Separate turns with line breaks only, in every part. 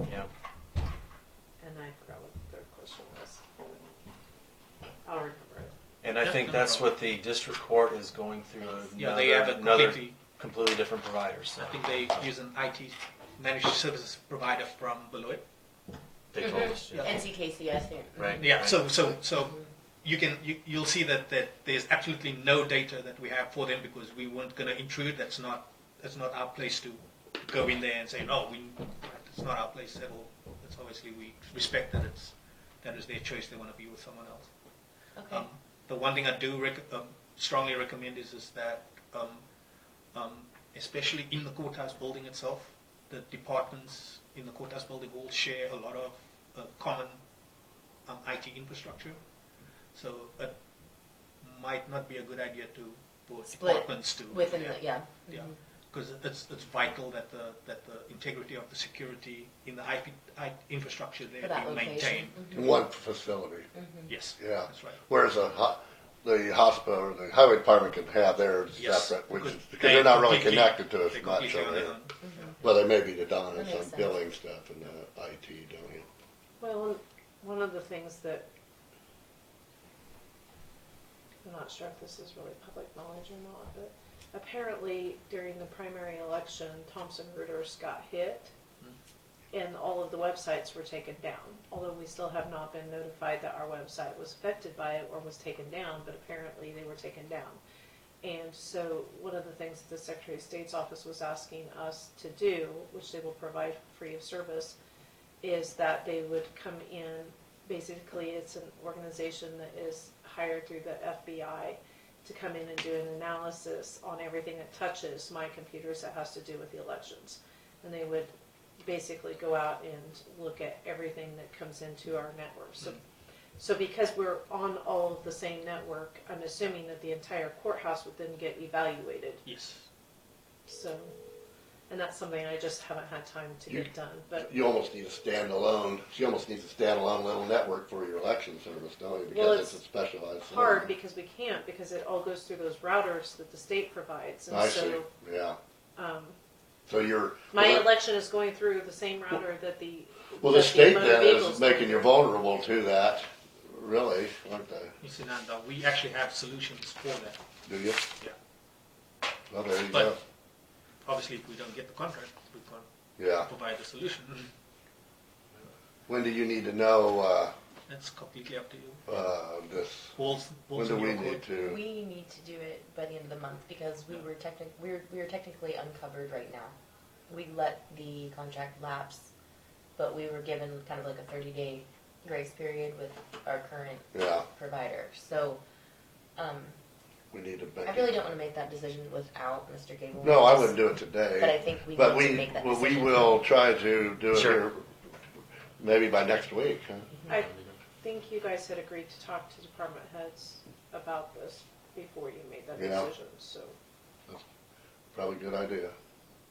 Yeah.
And I forgot what the third question was. I'll remember it.
And I
Yeah,
think
no
that's
problem.
what the district court is going through another,
Yeah, they have a
another
completely,
completely different provider. So
I think they use an IT managed services provider from below it.
they told us. Yeah.
NCKCS here.
Right.
Yeah,
right.
so, so, so you can, you, you'll see that, that there's absolutely no data that we have for them because we weren't gonna intrude, that's not, that's not our place to go in there and say, no, we, it's not our place at all. It's obviously, we respect that it's, that is their choice, they wanna be with someone else.
Mm-hmm. Okay.
Um, the one thing I do rec- um, strongly recommend is, is that, um, um, especially in the courthouse building itself, the departments in the courthouse building all share a lot of uh, common um, IT infrastructure. So it might not be a good idea to for
Split
departments to
Within
yeah,
the, yeah. Mm-hmm.
yeah, because it's it's vital that the that the integrity of the security in the IP, I infrastructure there
For that
be maintained.
location. Mm-hmm.
in one facility.
Yes,
Yeah.
that's right.
Whereas a ho- the hospital or the highway department can have theirs
Yes,
separate, which is,
because
because they're not really
completely-
connected to eh? us
They're
much
completely on
over
their
here.
own.
Mm-hmm.
Well, they may be the dominance
That makes
on
sense.
billing stuff and the IT down here.
Well, one- one of the things that I'm not sure if this is really public knowledge or not, but apparently during the primary election, Thomson Reuters got hit and all of the websites were taken down. Although we still have not been notified that our website was affected by it or was taken down, but apparently they were taken down. And so one of the things that the Secretary of State's office was asking us to do, which they will provide free of service, is that they would come in, basically it's an organization that is hired through the FBI to come in and do an analysis on everything that touches my computers that has to do with the elections. And they would basically go out and look at everything that comes into our network. So, so because we're on all of the same network, I'm assuming that the entire courthouse would then get evaluated.
Yes.
So, and that's something I just haven't had time to
You-
get done, but.
You almost need a standalone, she almost needs a standalone little network for your election service, don't you?
Well,
Because it's a
it's
specialized.
hard
service.
because we can't because it all goes through those routers that the state provides, and
I see,
so
yeah.
um,
So you're.
my
well,
election is going through the same router that the
Well, the
that
state
motor
then
vehicles
is
go
making you
through.
vulnerable to that, really, aren't they?
You see, Nanda, we actually have solutions for that.
Do you?
Yeah.
Well, there you
But-
go.
Obviously, if we don't get the contract, we can't
Yeah.
provide the solution.
When do you need to know, uh,
That's completely up to you.
uh, this?
Walls,
When
walls
do
in
we
your court.
need to?
We need to do it by the end of the month because we were technic, we're, we're technically uncovered right now. We let the contract lapse, but we were given kind of like a thirty day grace period with our current
Yeah,
provider. So, um,
we need to make.
I really don't wanna make that decision without Mr. Gable.
No, I wouldn't do it
But I
today,
think we need
but
to
we,
make that
well, we
decision.
will try to do it
Sure.
here, maybe by next week, huh?
I think you guys had agreed to talk to department heads about this before you made that
Yeah.
decision. So
Probably a good idea.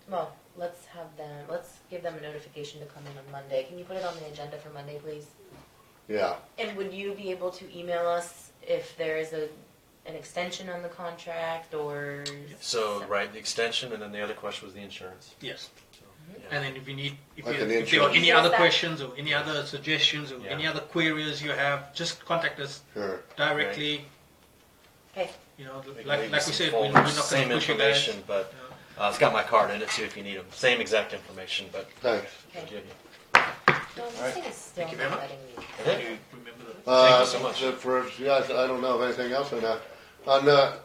Well, let's have them, let's give them a notification to come in on Monday. Can you put it on the agenda for Monday, please?
Yeah,
And would you be able to email us if there is a, an extension on the contract or?
So right, the extension, and then the other question was the insurance.
Yes.
Yeah.
And then if you need, if,
Like
you,
an
if there are
insurance.
any
Yes,
other
that-
questions or any other suggestions or
Yeah.
any other queries you have, just contact us
sure.
directly.
Okay,
You know,
They can
like,
leave
like
some
we said, we- we're
forms,
not going to push
same
you guys.
information, but
Yeah.
uh, it's got my card in it too if you need them. Same exact information, but
Thanks.
I'll give you.
no, this
Alright.
thing is still
Thank you very
not
much.
letting me.
Can you remember the-
Uh,
so much.
the- For, yeah, I I don't know of anything else on that. On the,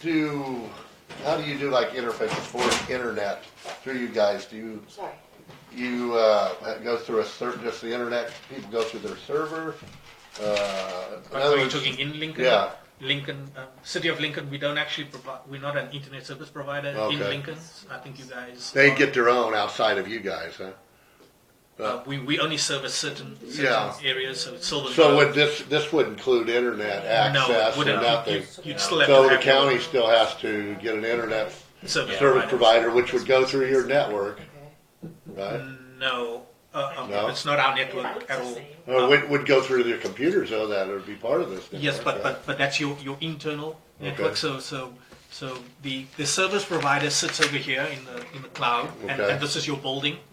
do, how do you do like interface for internet through you guys? Do you,
Sorry.
you, uh, go through a certain, just the internet, people go through their server? Uh, in
Are
other
you
words-
talking in Lincoln?
Yeah.
Lincoln, uh, city of Lincoln, we don't actually provide, we're not an internet service provider in
Okay.
Lincoln. I think you guys.
They
are-
get their own outside of you guys, huh?
Uh, we, we only service certain, certain
Yeah.
areas, so it's Silver
So
Grove.
would this, this would include internet
uh, no,
access
it
and
wouldn't.
nothing?
You'd, you'd still have
So
to
the
have your
county still has to get an internet
service
service
provider.
provider, which would go through your network,
Mm-hmm.
right?
No, uh, um,
No?
it's not our network at all.
Well, it Uh, would, would go through your computers though, that would be part of this. network,
Yes, but,
right?
but, but that's your, your internal network.
Okay.
So so so the, the service provider sits over here in the in the cloud, and,
Okay.
and this is your building.